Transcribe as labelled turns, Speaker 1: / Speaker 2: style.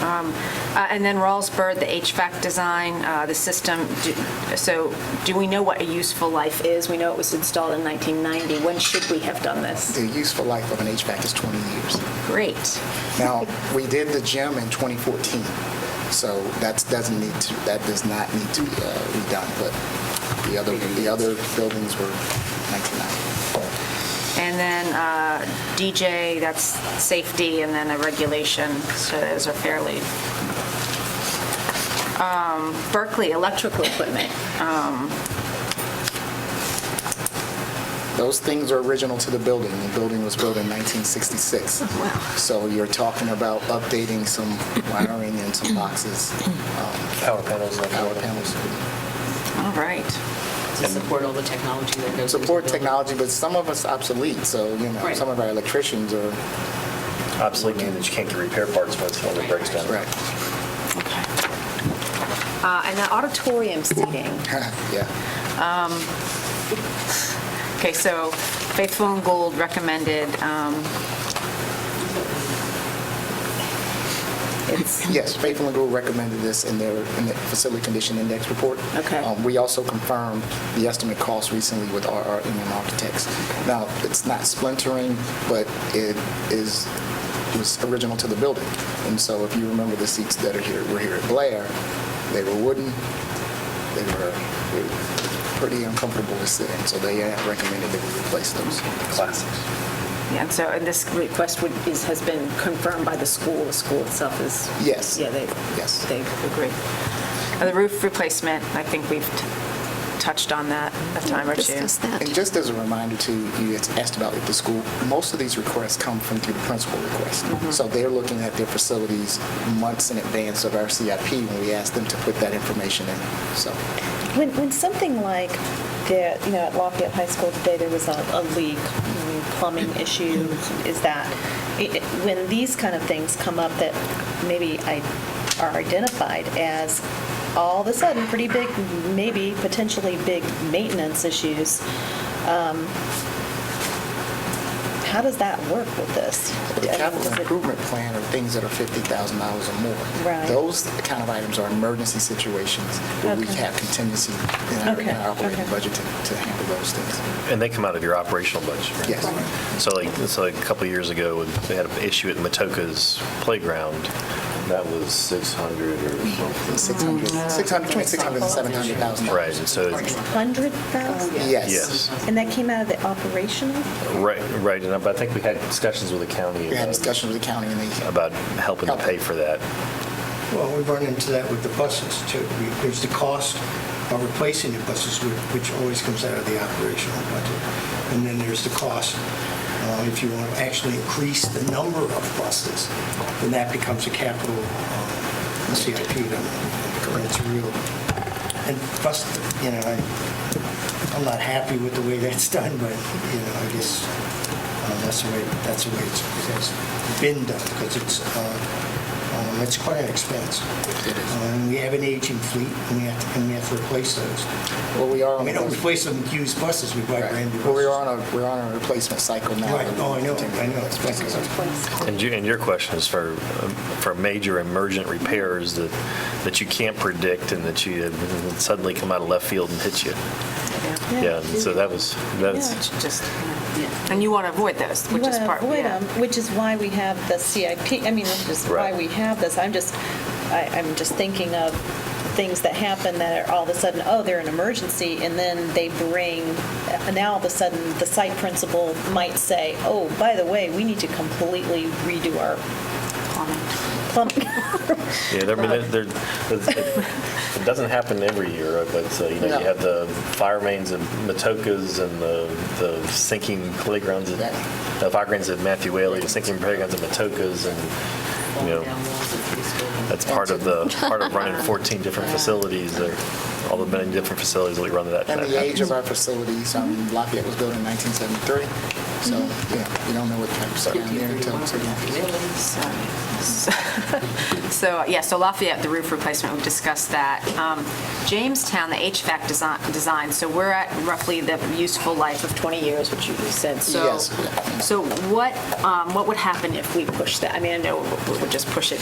Speaker 1: Um, uh, And then Rawlsburg, the HVAC design, uh, the system, do- so do we know what a useful life is? We know it was installed in 1990. When should we have done this?
Speaker 2: The useful life of an HVAC is 20 years.
Speaker 1: Great.
Speaker 2: Now, we did the gym in 2014, so that doesn't need to, that does not need to be uh, redone, but the other, the other buildings were 1990.
Speaker 1: And then uh, DJ, that's safety, and then a regulation, so those are fairly. Um, Berkeley, electrical equipment.
Speaker 2: Those things are original to the building. The building was built in 1966. So you're talking about updating some wiring and some boxes, um,
Speaker 3: Power panels. and
Speaker 2: power
Speaker 3: everything.
Speaker 2: panels.
Speaker 1: All right.
Speaker 4: to support all the technology that goes into the
Speaker 2: Support
Speaker 4: building.
Speaker 2: technology, but some of us obsolete, so, you know,
Speaker 4: Right.
Speaker 2: some of our electricians are,
Speaker 3: Obsolete, meaning that you can't get repair parts when it's- when it breaks down.
Speaker 2: right,
Speaker 1: Okay. Uh, And the auditorium seating.
Speaker 2: yeah.
Speaker 1: Okay, so Faithful and Gold recommended. um, It's,
Speaker 2: Yes, Faithful and Gould recommended this in their, in the facility condition index report.
Speaker 1: Okay.
Speaker 2: Um, We also confirmed the estimate cost recently with RRM Architects. Now, it's not splintering, but it is, was original to the building. And so if you remember the seats that are here, were here at Blair, they were wooden, they were they were pretty uncomfortable to sit in, so they have recommended that we replace those.
Speaker 3: Classics.
Speaker 1: yeah, and so, and this request would- is, has been confirmed by the school. The school itself is.
Speaker 2: Yes.
Speaker 1: Yeah, they.
Speaker 2: Yes.
Speaker 1: They agree. And the roof replacement, I think we've t- touched on that a time or two.
Speaker 5: Discuss that.
Speaker 2: And just as a reminder to you, it's asked about with the school, most of these requests come from through the principal request.
Speaker 6: Mm-hmm.
Speaker 2: So they're looking at their facilities months in advance of our CIP when we ask them to put that information in. So,
Speaker 6: When, when something like the, you know, at Lafayette High School today, there was a, a leak, mm, plumbing issue, is that, it- it- when these kind of things come up that maybe I, are identified as all of a sudden pretty big, maybe potentially big maintenance issues, um, how does that work with this?
Speaker 2: the
Speaker 6: I mean,
Speaker 2: capital
Speaker 6: is it-
Speaker 2: improvement plan are things that are $50,000 or more.
Speaker 6: Right.
Speaker 2: Those kind of items are emergency situations where we
Speaker 6: Okay.
Speaker 2: have contingency in our in
Speaker 6: Okay,
Speaker 2: our operating
Speaker 6: okay.
Speaker 2: budget to to handle those things.
Speaker 3: And they come out of your operational budget. right?
Speaker 2: Yes.
Speaker 3: So like, so like a couple of years ago, when they had an issue at Matoka's playground. That was 600 or something.
Speaker 6: Mm.
Speaker 2: 600, 600, between 600 and 700,000.
Speaker 3: Right, and so,
Speaker 6: Hundred thousand?
Speaker 2: Yes.
Speaker 3: yes,
Speaker 6: And that came out of the operational?
Speaker 3: right, right. And I but I think we had discussions with the county
Speaker 2: We had
Speaker 3: about-
Speaker 2: discussions with the county and they
Speaker 3: about helping to pay for that.
Speaker 7: Well, we run into that with the buses too. We- There's the cost of replacing the buses, whi- which always comes out of the operational budget. And then there's the cost, uh, if you want to actually increase the number of buses, then that becomes a capital uh, CIP. number. And It's real. And bus, you know, I- I'm not happy with the way that's done, but, you know, I guess uh, that's the way, that's the way it's it's been done, because it's, uh, um, it's quite an expense.
Speaker 2: It is.
Speaker 7: Um, We have an aging fleet, and we have to, and we have to replace those.
Speaker 2: Well, we are on
Speaker 7: We
Speaker 2: a
Speaker 7: don't
Speaker 2: budget.
Speaker 7: replace them with used buses, we buy brand
Speaker 2: Oh,
Speaker 7: new
Speaker 2: Right.
Speaker 7: buses.
Speaker 2: Well, we're on a, we're on a replacement cycle now.
Speaker 7: Right, oh, I know, I know.
Speaker 3: And you, and your question is for, um, for major emergent repairs that, that you can't predict and that you suddenly come out of left field and hit you. Yeah, and so that was, that's,
Speaker 1: Just, and you want to avoid those,
Speaker 6: You
Speaker 1: which
Speaker 6: want
Speaker 1: is
Speaker 6: to
Speaker 1: part,
Speaker 6: avoid
Speaker 1: yeah.
Speaker 6: them, which is why we have the CIP, I mean, which is why
Speaker 3: Right.
Speaker 6: we have this. I'm just, I, I'm just thinking of things that happen that are all of a sudden, oh, they're an emergency, and then they bring, and now all of a sudden, the site principal might say, oh, by the way, we need to completely redo our plumbing.
Speaker 3: yeah, there, I mean, there, there- it doesn't happen every year, but, uh, you know,
Speaker 2: No.
Speaker 3: you have the fire mains and Matokas and the, the sinking playgrounds, at-
Speaker 2: Right.
Speaker 3: the fire grounds at Matthew Whaley, the sinking playgrounds at Matokas and,
Speaker 4: Falling
Speaker 3: you know,
Speaker 4: down walls of these buildings.
Speaker 3: that's part of the, part of running 14 different facilities, there, all the many different facilities that we run that.
Speaker 2: And
Speaker 3: that
Speaker 2: the age
Speaker 3: happens.
Speaker 2: of our facilities, I mean, Lafayette was built in 1973, so, yeah, you don't know what types are down there until it's again.
Speaker 1: So, so, yeah, so Lafayette, the roof replacement, we've discussed that. Um, Jamestown, the HVAC desi- design, so we're at roughly the useful life of 20 years, which you you said. So,
Speaker 2: Yes.
Speaker 1: so what, um, what would happen if we push that? I mean, I know we would just push it